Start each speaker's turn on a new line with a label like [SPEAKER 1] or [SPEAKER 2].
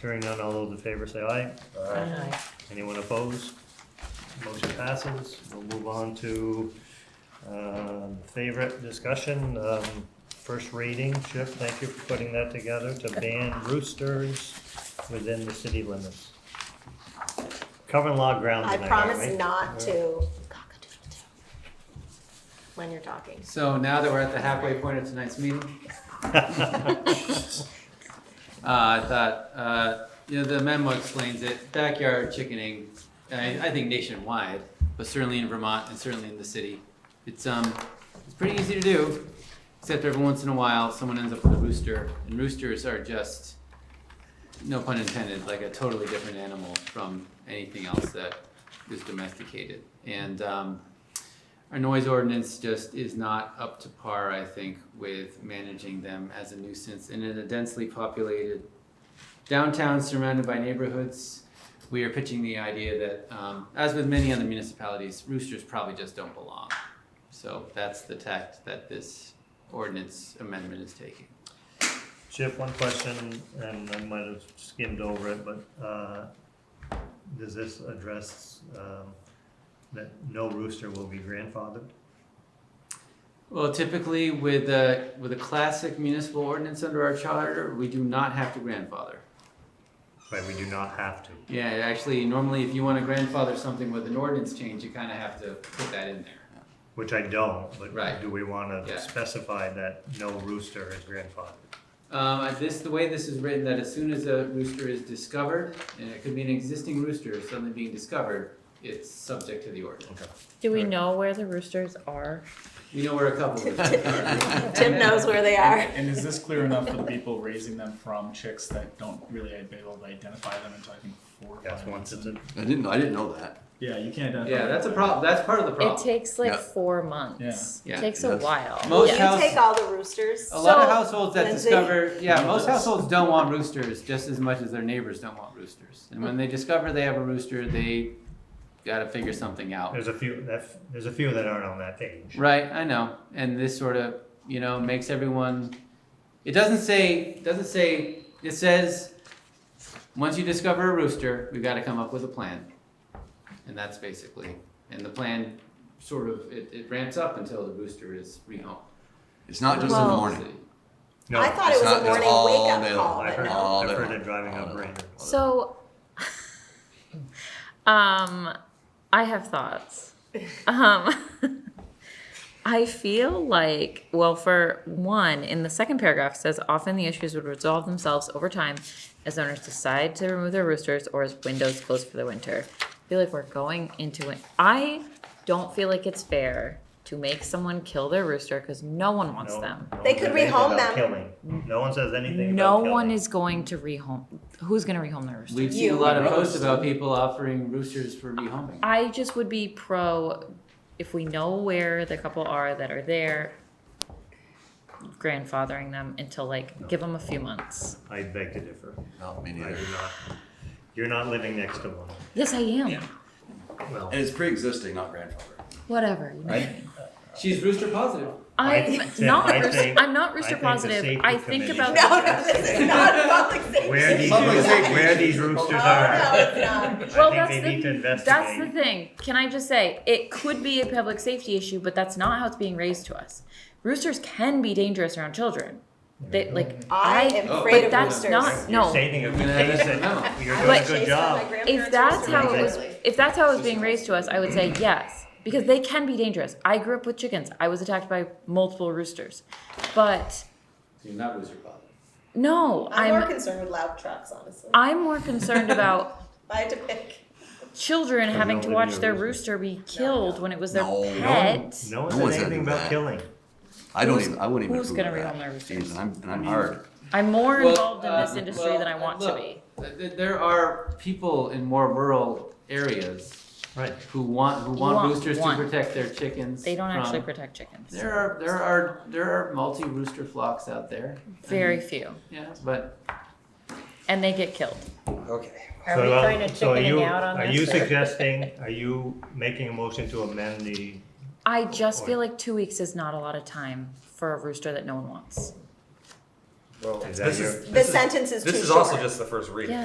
[SPEAKER 1] Hearing none, all those in favor say aye.
[SPEAKER 2] Aye.
[SPEAKER 1] Anyone opposed? Motion passes. We'll move on to um, favorite discussion, um, first reading. Chip, thank you for putting that together to ban roosters within the city limits. Covering law ground
[SPEAKER 2] I
[SPEAKER 1] tonight,
[SPEAKER 2] promise
[SPEAKER 1] aren't we?
[SPEAKER 2] not to cock-a-doodle-doo when you're talking.
[SPEAKER 3] So now that we're at the halfway point of tonight's meeting, uh, I thought, uh, you know, the memo explains it. Backyard chickening, I, I think nationwide, but certainly in Vermont and certainly in the city, it's um, it's pretty easy to do. Except every once in a while, someone ends up with a rooster, and roosters are just, no pun intended, like a totally different animal from anything else that is domesticated. And um, our noise ordinance just is not up to par, I think, with managing them as a nuisance. And in a densely populated downtown surrounded by neighborhoods, we are pitching the idea that, um, as with many other municipalities, roosters probably just don't belong. So that's the tact that this ordinance amendment is taking.
[SPEAKER 1] Chip, one question, and I might have skimmed over it, but uh, does this address um, that no rooster will be grandfathered?
[SPEAKER 3] Well, typically with a, with a classic municipal ordinance under our charter, we do not have to grandfather.
[SPEAKER 1] Right, we do not have to.
[SPEAKER 3] Yeah, actually, normally if you want to grandfather something with an ordinance change, you kind of have to put that in there.
[SPEAKER 1] Which I don't, but
[SPEAKER 3] Right.
[SPEAKER 1] do we want
[SPEAKER 3] Yeah.
[SPEAKER 1] to specify that no rooster is grandfathered?
[SPEAKER 3] Um, I- this, the way this is written, that as soon as a rooster is discovered, and it could be an existing rooster suddenly being discovered, it's subject to the ordinance.
[SPEAKER 4] Do we
[SPEAKER 1] Right.
[SPEAKER 4] know where the roosters are?
[SPEAKER 3] We know where a couple roosters are.
[SPEAKER 2] Tim knows where they are.
[SPEAKER 5] And is this clear enough for the people raising them from chicks that don't really be able to identify them until I think four or
[SPEAKER 1] Yes,
[SPEAKER 5] five
[SPEAKER 1] once it's
[SPEAKER 5] months? in?
[SPEAKER 1] a,
[SPEAKER 6] I didn't. I didn't know that.
[SPEAKER 5] Yeah, you can't identify.
[SPEAKER 3] Yeah,
[SPEAKER 5] them.
[SPEAKER 3] that's a prob, that's part of the
[SPEAKER 4] It
[SPEAKER 3] problem.
[SPEAKER 4] takes like
[SPEAKER 6] Yeah.
[SPEAKER 4] four months.
[SPEAKER 3] Yeah.
[SPEAKER 4] It
[SPEAKER 3] Yeah.
[SPEAKER 4] takes a
[SPEAKER 6] That's-
[SPEAKER 4] while.
[SPEAKER 3] Most
[SPEAKER 2] Will you
[SPEAKER 3] house- Oh.
[SPEAKER 2] take all the roosters?
[SPEAKER 3] A lot of
[SPEAKER 4] So,
[SPEAKER 3] households that
[SPEAKER 2] Lindsay-
[SPEAKER 3] discover, yeah, most households don't want roosters just as much as their neighbors don't want roosters. And when they discover they have a rooster, they gotta figure something out.
[SPEAKER 1] there's a few, that- there's a few that aren't on that page.
[SPEAKER 3] Right, I know, and this sort of you know makes everyone. It doesn't say doesn't say it says once you discover a rooster, we've got to come up with a plan, and that's basically and the plan sort of it, it ramps up until the rooster is rehomed.
[SPEAKER 6] It's not just in
[SPEAKER 4] Well-
[SPEAKER 6] the morning.
[SPEAKER 1] No,
[SPEAKER 2] I thought it
[SPEAKER 6] it's
[SPEAKER 2] was a
[SPEAKER 6] not- it's
[SPEAKER 2] morning
[SPEAKER 6] all
[SPEAKER 2] wake-up
[SPEAKER 6] day
[SPEAKER 2] call,
[SPEAKER 6] long.
[SPEAKER 1] I
[SPEAKER 2] but
[SPEAKER 1] heard,
[SPEAKER 2] no.
[SPEAKER 6] All
[SPEAKER 1] I
[SPEAKER 6] day
[SPEAKER 1] heard
[SPEAKER 6] long.
[SPEAKER 1] it driving
[SPEAKER 6] All
[SPEAKER 1] up
[SPEAKER 6] day long.
[SPEAKER 1] Brainerd.
[SPEAKER 4] So, um, I have thoughts. Um, I feel like, well, for one, in the second paragraph it says often the issues would resolve themselves over time as owners decide to remove their roosters or as windows close for the winter. I feel like we're going into it. I don't feel like it's fair to make someone kill their rooster because no one wants
[SPEAKER 1] No-
[SPEAKER 4] them.
[SPEAKER 1] no one
[SPEAKER 2] They
[SPEAKER 1] says
[SPEAKER 2] could
[SPEAKER 1] anything
[SPEAKER 2] rehome
[SPEAKER 1] about
[SPEAKER 2] them.
[SPEAKER 1] Killing. No one says anything
[SPEAKER 4] No
[SPEAKER 1] about
[SPEAKER 4] one
[SPEAKER 1] killing.
[SPEAKER 4] is going to rehome. Who's going to rehome their rooster?
[SPEAKER 3] We've seen a
[SPEAKER 2] You.
[SPEAKER 3] lot of posts about people offering roosters for rehoming.
[SPEAKER 4] I just would be pro if we know where the couple are that are there, grandfathering them until like give them a few months.
[SPEAKER 1] I beg to differ.
[SPEAKER 6] No, me
[SPEAKER 1] I
[SPEAKER 6] neither.
[SPEAKER 1] do not. You're not living next to one.
[SPEAKER 4] Yes, I am.
[SPEAKER 1] Well,
[SPEAKER 6] And it's pre-existing, not grandfather.
[SPEAKER 4] Whatever. You know.
[SPEAKER 6] Right?
[SPEAKER 3] She's rooster positive.
[SPEAKER 4] I'm
[SPEAKER 1] I- Tim,
[SPEAKER 4] not.
[SPEAKER 1] I
[SPEAKER 4] rooster,
[SPEAKER 1] think-
[SPEAKER 4] I'm not
[SPEAKER 1] I
[SPEAKER 4] rooster
[SPEAKER 1] think the
[SPEAKER 4] positive.
[SPEAKER 1] safety
[SPEAKER 4] I think
[SPEAKER 1] committee-
[SPEAKER 4] about
[SPEAKER 2] No, no, this is not a public safety.
[SPEAKER 1] where these,
[SPEAKER 6] Public safety
[SPEAKER 1] where
[SPEAKER 6] issues.
[SPEAKER 1] these
[SPEAKER 2] Oh,
[SPEAKER 1] roosters
[SPEAKER 2] no,
[SPEAKER 1] are,
[SPEAKER 2] it's
[SPEAKER 1] I
[SPEAKER 2] not.
[SPEAKER 4] Well,
[SPEAKER 1] think
[SPEAKER 4] that's
[SPEAKER 1] they need
[SPEAKER 4] the-
[SPEAKER 1] to
[SPEAKER 4] That's the
[SPEAKER 1] investigate.
[SPEAKER 4] thing. Can I just say it could be a public safety issue, but that's not how it's being raised to us. Roosters can be dangerous around children. They like
[SPEAKER 2] I am
[SPEAKER 3] Oh,
[SPEAKER 2] afraid
[SPEAKER 4] but
[SPEAKER 2] of
[SPEAKER 4] that's
[SPEAKER 2] roosters.
[SPEAKER 4] not
[SPEAKER 1] You're
[SPEAKER 4] no.
[SPEAKER 1] stating a
[SPEAKER 3] I'm gonna have
[SPEAKER 1] case
[SPEAKER 3] that memo.
[SPEAKER 1] that you're
[SPEAKER 2] I
[SPEAKER 1] doing a
[SPEAKER 2] chase
[SPEAKER 1] good
[SPEAKER 2] them, my
[SPEAKER 1] job.
[SPEAKER 2] grandparents
[SPEAKER 4] if that's
[SPEAKER 2] roosters
[SPEAKER 4] how it was
[SPEAKER 2] regularly.
[SPEAKER 4] if that's how it was being raised to us i would say yes because they can be dangerous i grew up with chickens i was attacked by multiple roosters but
[SPEAKER 3] You're not rooster positive.
[SPEAKER 4] no
[SPEAKER 2] I'm more
[SPEAKER 4] i'm
[SPEAKER 2] concerned with loud trucks, honestly.
[SPEAKER 4] i'm more concerned about
[SPEAKER 2] If I had to pick,
[SPEAKER 4] children
[SPEAKER 1] Because
[SPEAKER 4] having
[SPEAKER 1] they'll
[SPEAKER 4] to
[SPEAKER 1] live
[SPEAKER 4] watch
[SPEAKER 1] near
[SPEAKER 4] their
[SPEAKER 1] roosters.
[SPEAKER 4] rooster be killed when it was their
[SPEAKER 6] No. No.
[SPEAKER 4] pet
[SPEAKER 1] No one
[SPEAKER 6] No one's
[SPEAKER 1] says
[SPEAKER 6] gonna
[SPEAKER 1] anything
[SPEAKER 6] do
[SPEAKER 1] about
[SPEAKER 6] that.
[SPEAKER 1] killing.
[SPEAKER 6] I don't
[SPEAKER 4] Who's-
[SPEAKER 6] even. I wouldn't even.
[SPEAKER 4] who's
[SPEAKER 6] approve
[SPEAKER 4] gonna
[SPEAKER 6] of
[SPEAKER 4] rehome
[SPEAKER 6] that.
[SPEAKER 4] their roosters?
[SPEAKER 6] Jeez, and I'm, and I'm hard.
[SPEAKER 4] i'm more
[SPEAKER 3] Well,
[SPEAKER 4] involved in this
[SPEAKER 3] um,
[SPEAKER 4] industry
[SPEAKER 3] well,
[SPEAKER 4] than i want
[SPEAKER 3] look,
[SPEAKER 4] to be
[SPEAKER 3] th- th- There are people in more rural areas
[SPEAKER 1] Right.
[SPEAKER 3] who want, who
[SPEAKER 4] Want-
[SPEAKER 3] want roosters to
[SPEAKER 4] want.
[SPEAKER 3] protect their chickens.
[SPEAKER 4] they don't actually
[SPEAKER 3] from-
[SPEAKER 4] protect chickens
[SPEAKER 3] There are, there are, there are multi-rooster flocks out there. I
[SPEAKER 4] very
[SPEAKER 3] mean,
[SPEAKER 4] few
[SPEAKER 3] Yeah, but
[SPEAKER 4] and they get killed
[SPEAKER 6] Okay.
[SPEAKER 1] So,
[SPEAKER 7] Are we
[SPEAKER 1] uh,
[SPEAKER 7] kind of
[SPEAKER 1] so are you-
[SPEAKER 7] chickening out on
[SPEAKER 1] Are you
[SPEAKER 7] this? or-
[SPEAKER 1] suggesting, are you making a motion to amend the,
[SPEAKER 4] i just
[SPEAKER 1] Or-
[SPEAKER 4] feel like two weeks is not a lot of time for a rooster that no one wants
[SPEAKER 8] Well, this
[SPEAKER 1] Is that your-
[SPEAKER 8] is,
[SPEAKER 2] the
[SPEAKER 8] this is,
[SPEAKER 2] sentence is too
[SPEAKER 8] this
[SPEAKER 2] short.
[SPEAKER 8] is also just the first reading.
[SPEAKER 4] yeah